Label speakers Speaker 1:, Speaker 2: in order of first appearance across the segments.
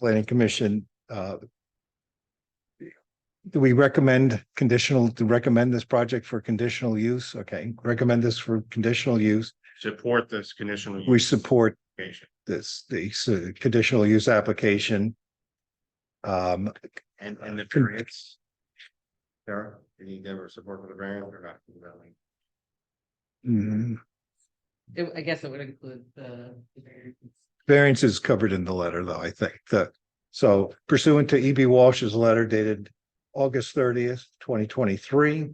Speaker 1: planning commission, uh. Do we recommend conditional, to recommend this project for conditional use? Okay, recommend this for conditional use.
Speaker 2: support this conditional.
Speaker 1: We
Speaker 2: use
Speaker 1: support
Speaker 2: application.
Speaker 1: this, the s- conditional use application. Um,
Speaker 2: And, and the
Speaker 1: Con-
Speaker 2: variance. Sarah, did you give her support for the variance or not?
Speaker 1: mm,
Speaker 3: It, I guess it would include the. the variances.
Speaker 1: variance is covered in the letter, though, I think, the, so pursuant to E B Walsh's letter dated August thirtieth, twenty twenty-three,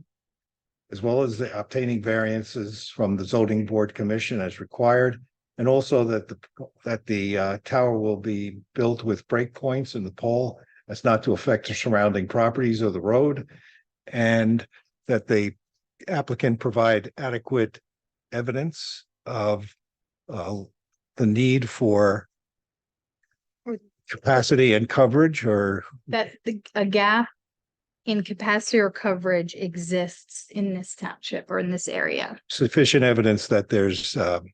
Speaker 1: as well as the obtaining variances from the zoning board commission as required, and also that the, that the uh, tower will be built with breakpoints in the pole as not to affect the surrounding properties or the road, and that the applicant provide adequate evidence of uh, the need for capacity and coverage or
Speaker 4: that the, a gap in capacity or coverage exists in this township or in this area.
Speaker 1: sufficient evidence that there's um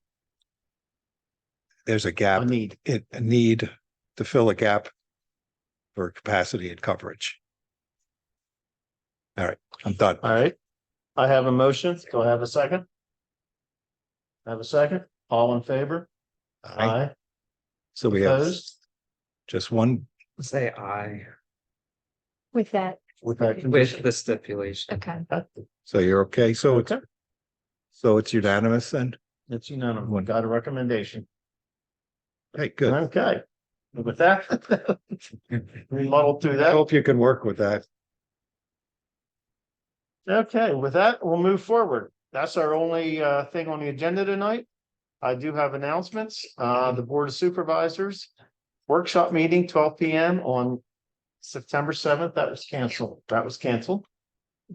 Speaker 1: there's a gap,
Speaker 2: need.
Speaker 1: it, a need to fill a gap for capacity and coverage. All right, I'm done.
Speaker 5: All right. I have a motion. Do I have a second? Have a second? All in favor? Aye.
Speaker 1: So we have
Speaker 5: Opposed?
Speaker 1: just one,
Speaker 6: Say aye
Speaker 4: With that,
Speaker 5: With that
Speaker 6: with
Speaker 5: condition.
Speaker 6: the stipulation.
Speaker 4: okay.
Speaker 1: so you're okay, so it's,
Speaker 5: Okay,
Speaker 1: so it's unanimous then?
Speaker 5: it's unanimous. Got a recommendation.
Speaker 1: Hey, good.
Speaker 5: Okay. With that. We muddled through
Speaker 1: I
Speaker 5: that.
Speaker 1: hope you can work with that.
Speaker 5: Okay, with that, we'll move forward. That's our only uh thing on the agenda tonight. I do have announcements. Uh, the Board of Supervisors workshop meeting twelve P M on September seventh, that was canceled. That was canceled.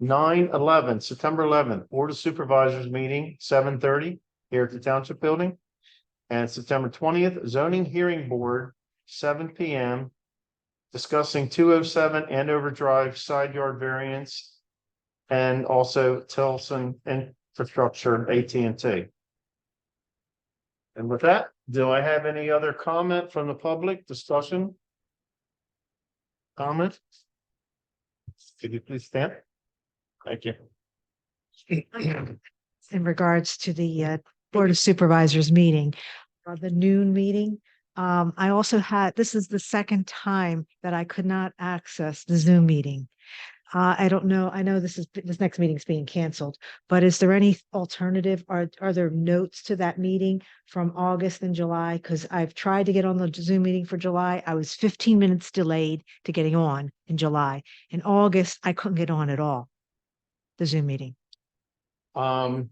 Speaker 5: 9-11, September eleventh, Board of Supervisors meeting, seven thirty here at the Township Building. And September twentieth, zoning hearing board, seven P M. Discussing two oh seven Andover Drive side yard variance and also Tilson Infrastructure, AT and T. And with that, do I have any other comment from the public discussion? Comment? Could you please stand? Thank you.
Speaker 7: in regards to the uh, Board of Supervisors meeting, uh, the noon meeting. Um, I also had, this is the second time that I could not access the Zoom meeting. Uh, I don't know, I know this is, this next meeting's being canceled, but is there any alternative? Are, are there notes to that meeting from August and July? Because I've tried to get on the Zoom meeting for July. I was fifteen minutes delayed to getting on in July. In August, I couldn't get on at all, the Zoom meeting.
Speaker 5: Um,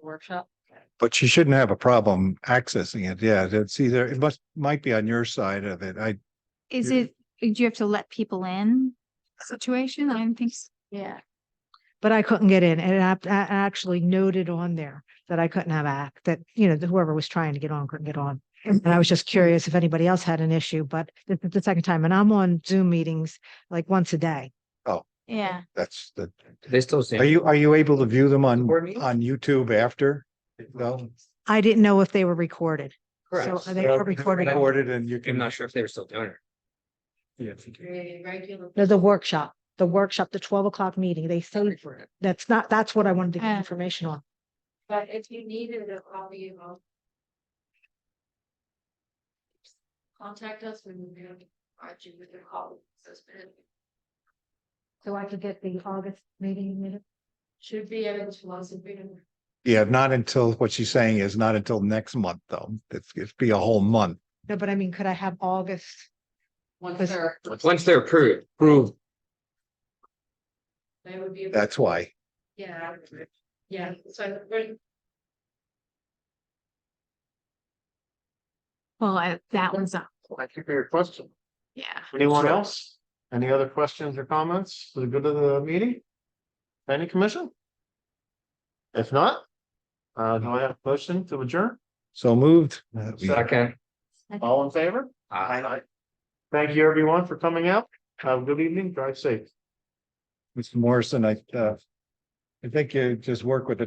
Speaker 3: Workshop,
Speaker 1: But she shouldn't have a problem accessing it. Yeah, that's either, it must, might be on your side of it. I,
Speaker 4: Is
Speaker 1: Yeah.
Speaker 4: it, do you have to let people in situation? I don't think, so. yeah.
Speaker 7: but I couldn't get in. And I, I actually noted on there that I couldn't have act, that, you know, whoever was trying to get on couldn't get on. And I was just curious if anybody else had an issue, but this is the second time and I'm on Zoom meetings like once a day.
Speaker 4: Yeah.
Speaker 1: that's the,
Speaker 6: They still.
Speaker 1: are you, are you able to view them on,
Speaker 6: Board meeting?
Speaker 1: on YouTube after? No?
Speaker 7: I didn't know if they were recorded.
Speaker 6: Correct.
Speaker 7: So they are recorded.
Speaker 1: Recorded and you can.
Speaker 6: I'm not sure if they were still doing it. Yeah.
Speaker 7: No, the workshop, the workshop, the twelve o'clock meeting, they sold for it. That's not, that's what I wanted to get
Speaker 4: Ah.
Speaker 7: information on.
Speaker 4: But if you needed a copy of. Contact us when we provide you with a call.
Speaker 7: So I could get the August meeting minutes.
Speaker 4: Should be able to us if we don't.
Speaker 1: Yeah, not until, what she's saying is not until next month, though. It's, it'd be a whole month.
Speaker 7: No, but I mean, could I have August?
Speaker 3: once
Speaker 7: This-
Speaker 3: they're,
Speaker 6: Once they're approved, approved,
Speaker 8: They would be,
Speaker 1: That's why.
Speaker 8: yeah, yeah, so we're,
Speaker 4: Well, I- that one's up,
Speaker 5: thank you for your question.
Speaker 4: yeah.
Speaker 5: Anyone else? Any other questions or comments for the good of the meeting? Any commission? If not, uh, do I have a motion to adjourn?
Speaker 1: So moved. Uh, we-
Speaker 6: second.
Speaker 5: All in favor?
Speaker 6: Aye.
Speaker 5: Thank you, everyone, for coming out. Have a good evening. Drive safe.
Speaker 1: Mr. Morrison, I, uh, I think you just work with the